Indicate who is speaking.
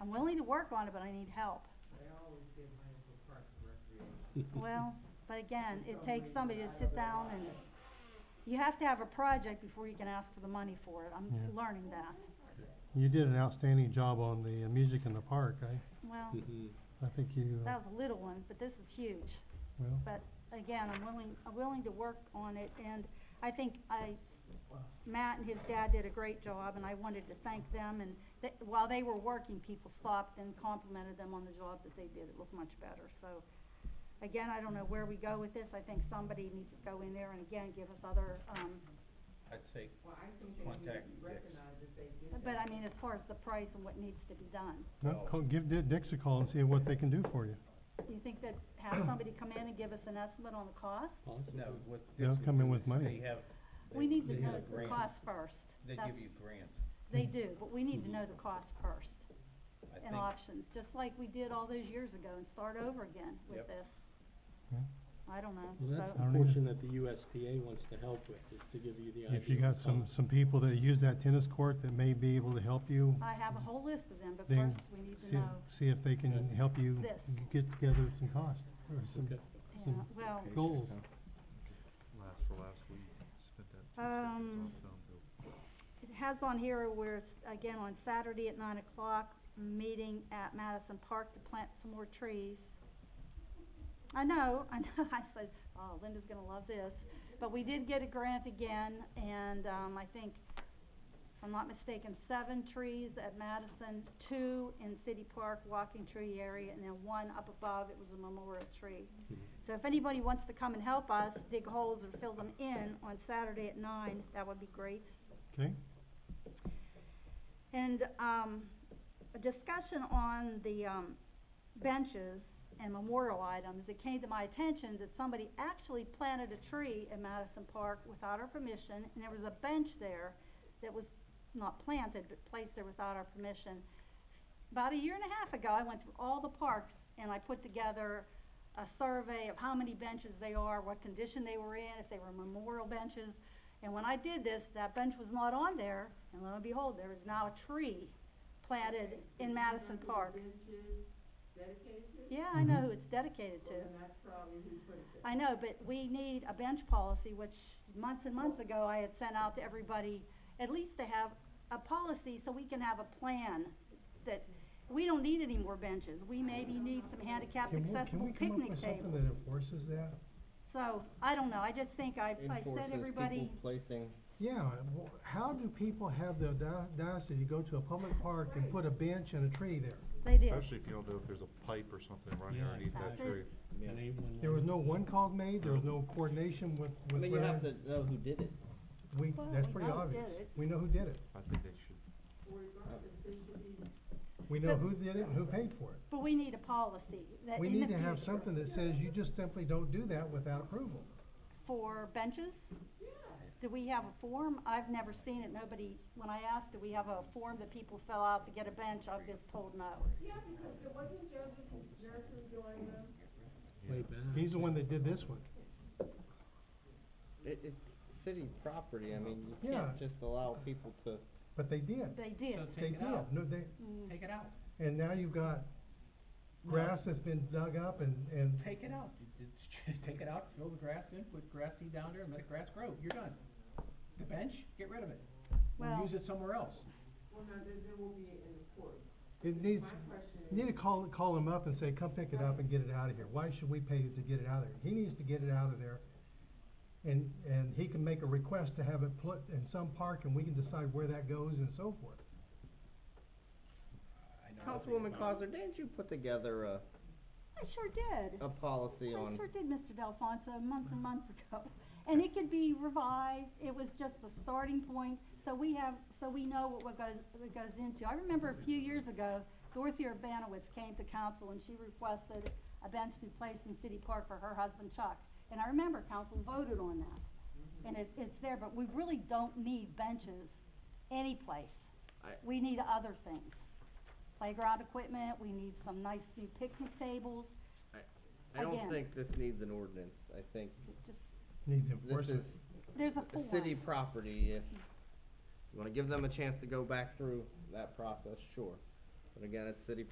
Speaker 1: I'm willing to work on it, but I need help.
Speaker 2: They always give money for parks and recreation.
Speaker 1: Well, but again, it takes somebody to sit down and, you have to have a project before you can ask for the money for it, I'm
Speaker 3: Yeah.
Speaker 1: learning that.
Speaker 3: You did an outstanding job on the uh, music in the park, I,
Speaker 1: Well,
Speaker 4: Mm-hmm.
Speaker 3: I think you, uh,
Speaker 1: that was a little one, but this is huge.
Speaker 3: well,
Speaker 1: But again, I'm willing, I'm willing to work on it, and I think I, Matt and his dad did a great job, and I wanted to thank them, and th while they were working, people stopped and complimented them on the job that they did, it looked much better, so. Again, I don't know where we go with this, I think somebody needs to go in there and again, give us other, um,
Speaker 5: I'd say,
Speaker 2: Well, I think they need to
Speaker 5: Contact
Speaker 2: be
Speaker 5: Dick's.
Speaker 2: recognized if they did that.
Speaker 1: but I mean, as far as the price and what needs to be done.
Speaker 3: no, call, give Di- Dix a call and see what they can do for you.
Speaker 1: You think that have somebody come in and give us an estimate on the cost?
Speaker 5: no, what
Speaker 3: They'll
Speaker 5: Dixie
Speaker 3: come in
Speaker 5: do
Speaker 3: with
Speaker 5: is
Speaker 3: money.
Speaker 5: They have,
Speaker 1: We
Speaker 5: they,
Speaker 1: need to
Speaker 5: they
Speaker 1: know
Speaker 5: have
Speaker 1: the
Speaker 5: grants,
Speaker 1: cost first.
Speaker 5: they
Speaker 1: That's-
Speaker 5: give you grants,
Speaker 1: They do, but we need to know the cost first
Speaker 5: I think,
Speaker 1: and options, just like we did all those years ago and start over again with
Speaker 5: Yep.
Speaker 1: this.
Speaker 3: Yeah.
Speaker 1: I don't know,
Speaker 4: Well, that's
Speaker 3: I
Speaker 1: so,
Speaker 4: the
Speaker 3: don't either.
Speaker 4: portion that the USDA wants to help with, is to give you the idea.
Speaker 3: If you
Speaker 4: of
Speaker 3: got some,
Speaker 4: cost.
Speaker 3: some people that use that tennis court that may be able to help you,
Speaker 1: I have a whole list of them, but
Speaker 3: Then
Speaker 1: first we need to
Speaker 3: see,
Speaker 1: know,
Speaker 3: see if they can help you
Speaker 1: This.
Speaker 3: g- get together some cost, or some
Speaker 4: Okay.
Speaker 1: yeah,
Speaker 3: some-
Speaker 1: well,
Speaker 3: goals.
Speaker 6: Last for last week, spent that two
Speaker 1: Um,
Speaker 6: seconds on Soundville.
Speaker 1: it has on here where it's, again, on Saturday at nine o'clock, meeting at Madison Park to plant some more trees. I know, I know, I said, oh, Linda's gonna love this, but we did get a grant again, and, um, I think, if I'm not mistaken, seven trees at Madison, two in City Park walking tree area, and then one up above, it was a memorial tree.
Speaker 4: Mhm.
Speaker 1: So if anybody wants to come and help us dig holes or fill them in on Saturday at nine, that would be great.
Speaker 3: Okay,
Speaker 1: And, um, a discussion on the, um, benches and memorial items, it came to my attention that somebody actually planted a tree in Madison Park without our permission, and there was a bench there that was not planted, but placed there without our permission. About a year and a half ago, I went through all the parks and I put together a survey of how many benches they are, what condition they were in, if they were memorial benches. And when I did this, that bench was not on there, and lo and behold, there is now a tree planted in Madison Park.
Speaker 2: Benches dedicated,
Speaker 1: Yeah, I know
Speaker 3: Mhm.
Speaker 1: who it's dedicated
Speaker 2: well,
Speaker 1: to.
Speaker 2: then that's probably who put it there.
Speaker 1: I know, but we need a bench policy, which months and months ago I had sent out to everybody, at least to have a policy so we can have a plan that we don't need any more benches. We maybe need some handicapped accessible picnic tables.
Speaker 3: that enforces that?
Speaker 1: So, I don't know, I just think I, I said everybody,
Speaker 7: placing.
Speaker 3: Yeah, how do people have the audacity to go to a public park and put a bench and a tree there?
Speaker 1: they did.
Speaker 6: Especially if you don't know if there's a pipe or something running
Speaker 4: Yeah,
Speaker 6: underneath that
Speaker 1: exactly.
Speaker 6: tree.
Speaker 4: And they wouldn't
Speaker 3: There was
Speaker 4: want-
Speaker 3: no one call made, there was no coordination with,
Speaker 7: I
Speaker 3: with
Speaker 7: mean, you have
Speaker 3: where,
Speaker 7: to know who did it.
Speaker 3: we,
Speaker 1: Well,
Speaker 3: that's
Speaker 1: we
Speaker 3: pretty
Speaker 1: know who
Speaker 3: obvious.
Speaker 1: did it.
Speaker 3: We know who did it.
Speaker 6: I think they should,
Speaker 2: Regardless, they should be
Speaker 3: We know who did it and who paid for it.
Speaker 1: But we need a policy that
Speaker 3: We
Speaker 1: in the
Speaker 3: need to have
Speaker 1: future
Speaker 3: something that says you just simply don't do that without approval.
Speaker 1: for benches? Do we have a form? I've never seen it, nobody, when I asked, do we have a form that people fill out to get a bench, I've been told no.
Speaker 2: Yeah, because it wasn't Joseph Johnson doing them.
Speaker 4: Way back.
Speaker 3: He's the one that did this one.
Speaker 7: It, it's city property, I mean, you
Speaker 3: Yeah.
Speaker 7: can't just allow people to.
Speaker 3: But they did.
Speaker 1: They did.
Speaker 3: They did. No, they,
Speaker 1: Mm.
Speaker 8: Take it out,
Speaker 3: and now you've got grass that's been dug up and, and
Speaker 8: take it out, You- you- take it out, fill the grass in, put grass seed down there and let grass grow, you're done. The bench, get rid of it, or
Speaker 1: Well-
Speaker 8: use it somewhere else.
Speaker 2: Well, now, then there will be in the court.
Speaker 3: it needs,
Speaker 2: My question is.
Speaker 3: you need to call, call him up and say, come pick it up and get it out of here. Why should we pay to get it out of there? He needs to get it out of there. And, and he can make a request to have it put in some park and we can decide where that goes and so forth.
Speaker 5: I know nothing
Speaker 7: Councilwoman
Speaker 5: about
Speaker 7: Cosner, didn't you put together a,
Speaker 1: I sure did.
Speaker 7: a policy
Speaker 1: I
Speaker 7: on,
Speaker 1: sure did, Mr. Delphonso, months and months ago. And it could be revised, it was just a starting point, so we have, so we know what- what goes, what goes into. I remember a few years ago, Dorothy Urbanowitz came to council and she requested a bench be placed in City Park for her husband Chuck. And I remember council voted on that.
Speaker 7: Mm-hmm.
Speaker 1: And it, it's there, but we really don't need benches anyplace.
Speaker 7: I-
Speaker 1: We need other things. Playground equipment, we need some nice new picnic tables,
Speaker 7: I
Speaker 1: again.
Speaker 7: don't think this needs an ordinance, I think
Speaker 1: just,
Speaker 3: Needs
Speaker 7: this
Speaker 3: enforcement.
Speaker 7: is
Speaker 1: there's a
Speaker 7: a
Speaker 1: form.
Speaker 7: city property, if you wanna give them a chance to go back through that process, sure. But again, it's city